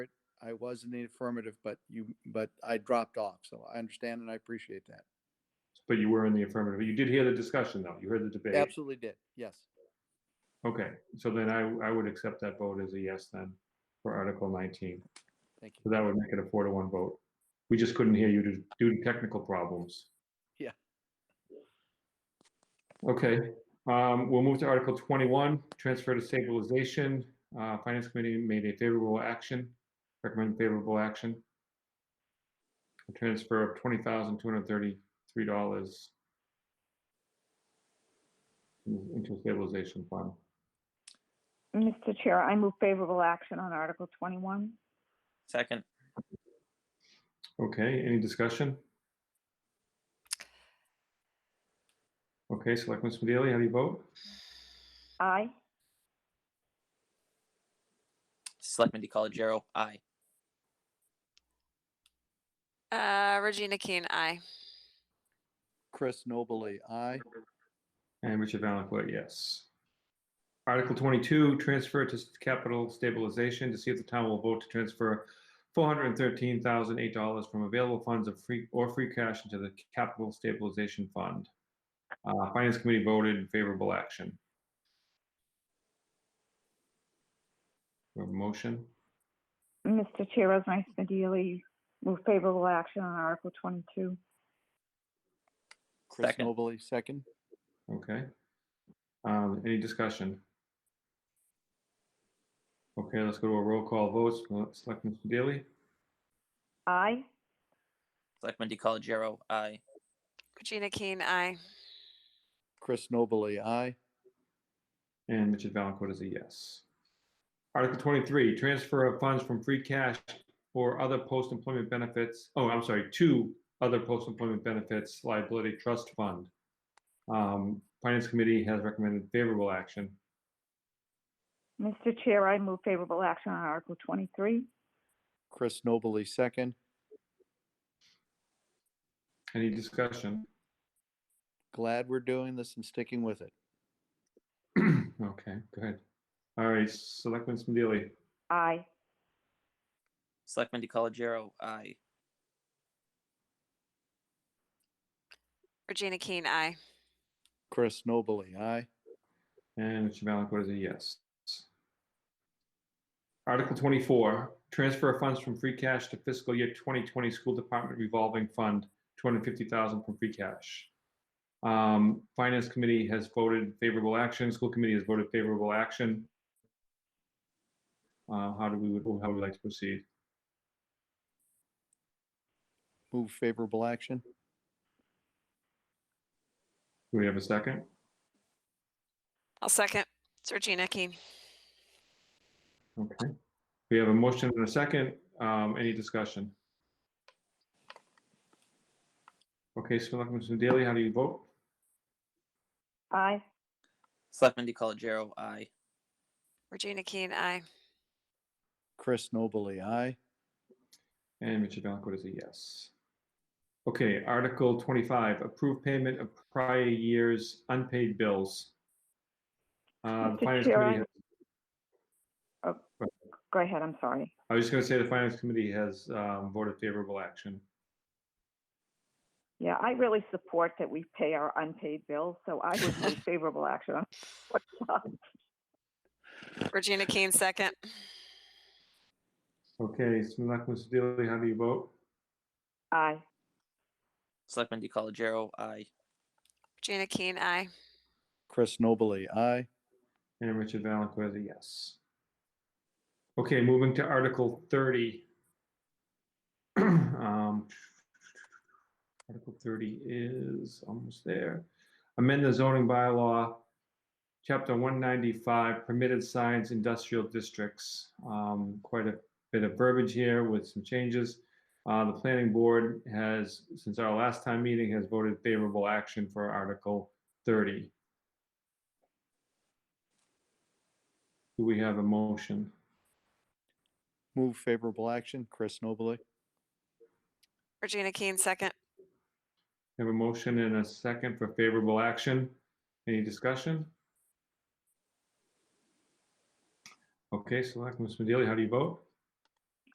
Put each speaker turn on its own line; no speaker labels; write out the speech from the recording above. I was in the affirmative, but you, but I dropped off. So I understand and I appreciate that.
But you were in the affirmative. You did hear the discussion, though. You heard the debate.
Absolutely did. Yes.
Okay, so then I, I would accept that vote as a yes then for Article 19.
Thank you.
So that would make it a four to one vote. We just couldn't hear you due- due to technical problems.
Yeah.
Okay, um, we'll move to Article 21, transfer to stabilization. Uh, Finance Committee made a favorable action, recommend favorable action. A transfer of $20,233 into stabilization fund.
Mr. Chair, I move favorable action on Article 21.
Second.
Okay, any discussion? Okay, Selectman Smedeli, how do you vote?
Aye.
Selectman DiColigiero, aye.
Uh, Regina Keen, aye.
Chris Nobley, aye.
And Richard Valencourt, yes. Article 22, transfer to capital stabilization to see if the town will vote to transfer $413,008 from available funds of free, or free cash into the capital stabilization fund. Uh, Finance Committee voted favorable action. We have a Motion?
Mr. Chair, Resnice Smedili, move favorable action on Article 22.
Chris
Second.
Nobley, second.
Okay. Um, any discussion? Okay, let's go to a roll call vote. Selectman Daily,
Aye.
Selectman DiColigiero, aye.
Regina Keen, aye.
Chris Nobley, aye.
and Richard Valencourt is a yes. Article twenty-three, transfer of funds from free cash or other post-employment benefits, oh, I'm sorry, to other post-employment benefits liability trust fund. Um, Finance Committee has recommended favorable action.
Mr. Chair, I move favorable action on Article 23.
Chris Nobley, second.
Any discussion?
Glad we're doing this and sticking with it.
Okay, good. All right, Selectman Daily.
Aye.
Selectman DiColigiero, aye.
Regina Keen, aye.
Chris Nobley, aye.
And Mr. Valencourt is a yes. Article 24, transfer of funds from free cash to fiscal year 2020 school department revolving fund, 250,000 from free cash. Um, Finance committee has voted favorable action, school committee has voted favorable action. Uh, How do we, would how would we like to proceed?
Move favorable action.
Do we have a second?
I'll second. It's Regina Keen.
Okay. We have a motion and a second. Um, Any discussion? Okay, Selectman Daily, how do you vote?
Aye.
Selectman DiColigiero, aye.
Regina Keen, aye.
Chris Nobley, aye.
And Richard Valencourt is a yes. Okay, Article 25, approve payment of prior year's unpaid bills. Uh, the
Mr.
Finance
Chair,
Committee has-
Go ahead, I'm sorry.
I was just going to say the Finance Committee has um, voted favorable action.
Yeah, I really support that we pay our unpaid bills, so I would move favorable action on
Regina Keen, second.
Okay, Selectman Sedilli, how do you vote?
Aye.
Selectman DiColigiero, aye.
Regina Keen, aye.
Chris Nobley, aye.
And Richard Valencourt is a yes. Okay, moving to Article 30. Um, Article 30 is almost there. Amend the zoning bylaw, Chapter 195, permitted signs, industrial districts. Um, Quite a bit of verbiage here with some changes. Uh, The planning board has, since our last time meeting, has voted favorable action for Article 30. Do we have a motion?
Move favorable action. Chris Nobley.
Regina Keen, second.
Have a motion and a second for favorable action. Any discussion? Okay, Selectman Smedili, how do you vote?